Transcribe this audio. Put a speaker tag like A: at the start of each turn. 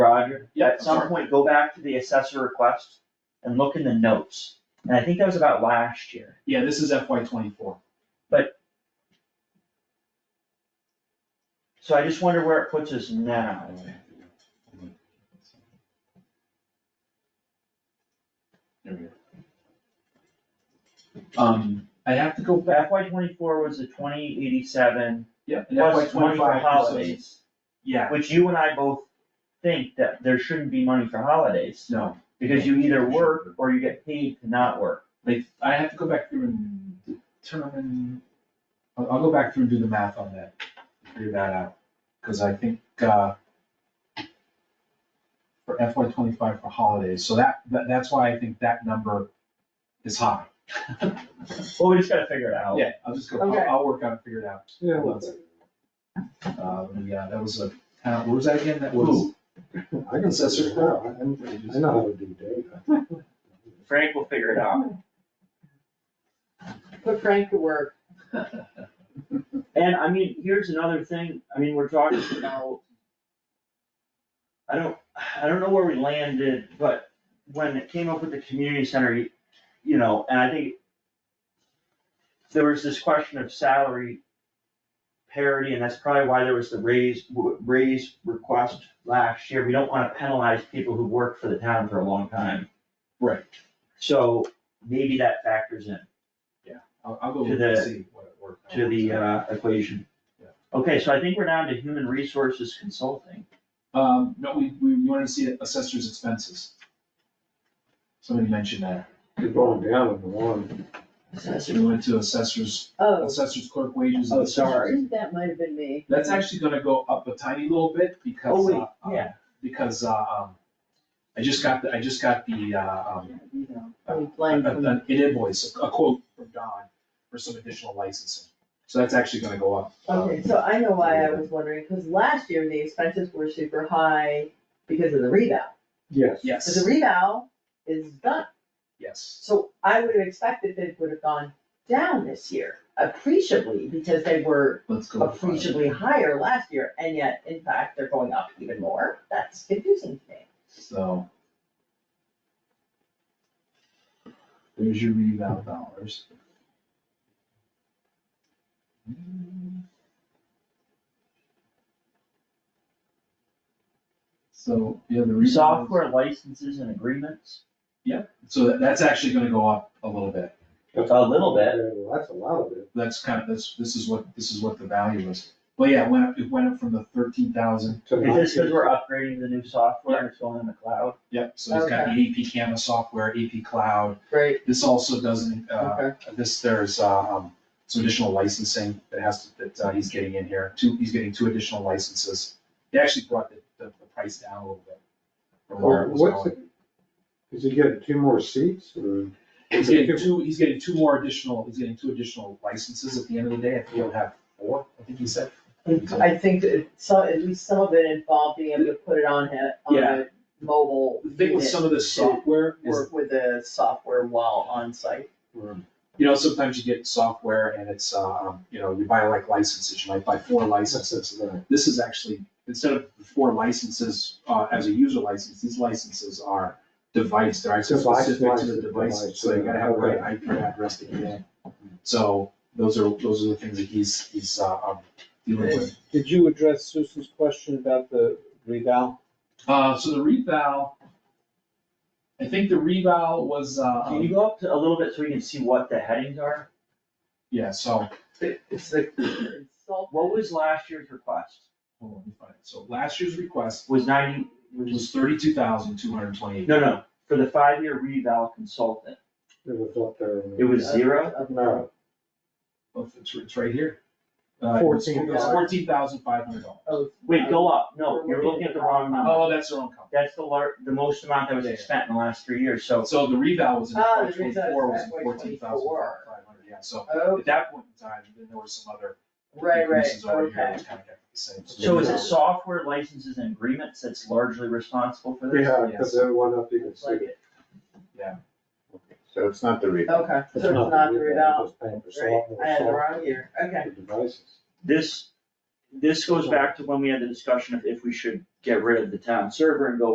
A: Roger,
B: Yeah,
A: at some
B: sure.
A: point, go back to the assessor request and look in the notes. And I think that was about last year.
B: Yeah, this is FY twenty-four.
A: So I just wonder where it puts us now.
B: There we go. Um, I have to go,
A: FY twenty-four was the twenty eighty-seven
B: yeah, and FY
A: plus money for
B: twenty-five.
A: holidays,
B: Yeah,
A: which you and I both think that there shouldn't be money for holidays.
B: no,
A: Because you either work or you get paid to not work.
B: they, I have to go back through and determine, I'll, I'll go back through and do the math on that, figure that out. Cause I think, uh, for FY twenty-five for holidays, so that, that, that's why I think that number is high.
A: Well, we just gotta figure it out.
B: Yeah, I'll just go, I'll,
C: Okay.
B: I'll work out, and figure it out.
C: Yeah,
B: Hold on. Um, yeah, that was a, town- what was that again? That was,
A: Who?
C: I can assess it now, I I know how to do data.
A: Frank will figure it out.
D: Put Frank to work.
A: And I mean, here's another thing, I mean, we're talking about. I don't, I don't know where we landed, but when it came up with the community center, you- you know, and I think. There was this question of salary parity, and that's probably why there was the raise, raise request last year, we don't wanna penalize people who worked for the town for a long time.
B: Right.
A: So maybe that factors in
B: I'll, I'll go
A: To
B: look and
A: the-
B: see what it worked. out.
A: to the uh, equation.
B: Yeah.
A: Okay, so I think we're down to human resources consulting.
B: Um, no, we, we wanted to see assessor's expenses. Somebody mentioned that.
C: You're going down in the one.
B: So we went to assessor's,
D: Oh,
B: assessor's clerk wages.
A: Oh, sorry.
D: that might have been me.
B: That's actually gonna go up a tiny little bit
A: Oh,
B: because,
A: wait,
B: uh, um,
A: yeah.
B: because, uh, um, I just got, the I just got the, uh, um,
D: You know,
B: Uh,
D: I'm
B: a-
D: blind
B: a-
D: from-
B: an invoice, a quote from Don for some additional licensing. So that's actually gonna go up. um,
D: Okay, so I know why I was wondering, because last year the expenses were super high because of the rebound.
C: Yes.
D: But
B: Yes,
D: the rebound is done,
B: yes.
D: so I would have expected that it would have gone down this year appreciably because they were
B: Let's go. with five.
D: appreciably higher last year, and yet in fact they're going up even more. That's confusing to me.
B: So. There's your reval dollars. So, yeah, the reval.
A: Software licenses and agreements,
B: So that- that's actually gonna go up a little bit.
A: A little bit.
C: Yeah, well, That's a lot of it.
B: That's kind of, this, this is what, this is what the value is. But yeah, it went up, it went up from the thirteen thousand,
C: to
A: is this because we're upgrading the new software and it's going in the cloud?
B: yep, so it's got the AP camera software, AP cloud.
D: Right,
B: This also doesn't, uh,
D: okay.
B: This, there's, uh, um, some additional licensing that has, to that, uh, he's getting in here, two, he's getting two additional licenses. They actually brought the, the, the price down a little bit from where
C: Or
B: it was
C: Oh, What's
B: going.
C: it? Is he getting two more seats or?
B: He's getting two, he's getting two more additional, he's getting two additional licenses at the end of the day, I think he'll have four, I think he said.
D: I think that some, at least some of it involved being able to put it on a, on
B: Yeah.
D: a mobile
B: The thing with
D: unit,
B: some of this software is,
D: work with the software while on site.
B: you know, sometimes you get software and it's, uh, um, you know, you buy like licenses, you might buy four licenses.
C: That's right.
B: this is actually, instead of the four licenses, uh, as a user license, these licenses are device, they're actually
C: Device
B: specific to the
C: license,
B: device,
C: device,
B: so you gotta have the
C: yeah,
B: right IP address to get in. So those are, those are the things that he's, he's, uh, um, dealing with.
E: Did you address Susan's question about the reval?
B: Uh, so the reval, I think the reval was, uh,
A: Can you go up to a little bit so we can see what the headings are?
B: yeah, so,
D: It's the consultant.
A: What was last year's request?
B: hold on, let me find it. So last year's request
A: Was ninety, was,
B: was thirty-two thousand, two hundred and twenty-eight.
A: no, no, for the five-year reval consultant,
C: It was up there.
A: it was zero?
C: No,
B: It's, it's right here. Uh, it was- It was
D: $14,000.
B: fourteen thousand, five hundred dollars.
D: Oh,
A: Wait, go up, no, you're looking at the wrong number.
B: Oh, that's the wrong company.
A: That's the lar, the most amount that
B: Yeah.
A: was spent in the last three years, so
B: So the reval was in
D: Ah,
B: FY
D: the reval is
B: twenty-four, was
D: FY
B: fourteen thousand five hundred, yeah, so
D: oh,
B: at that point in time, then there were some other
D: right, right,
B: increases over here, it
D: okay.
B: was kind of kept the same.
A: So is it software licenses and agreements that's largely responsible for this?
C: yeah, because everyone up, you can see.
D: Like it.
F: So it's not the reason.
D: Okay, so it's not the
C: It's
D: reval,
C: just paying for
D: right,
C: software,
D: I had the
C: software
D: wrong year, okay.
C: for devices.
A: This, this goes back to when we had the discussion of if we should get rid of the town server and go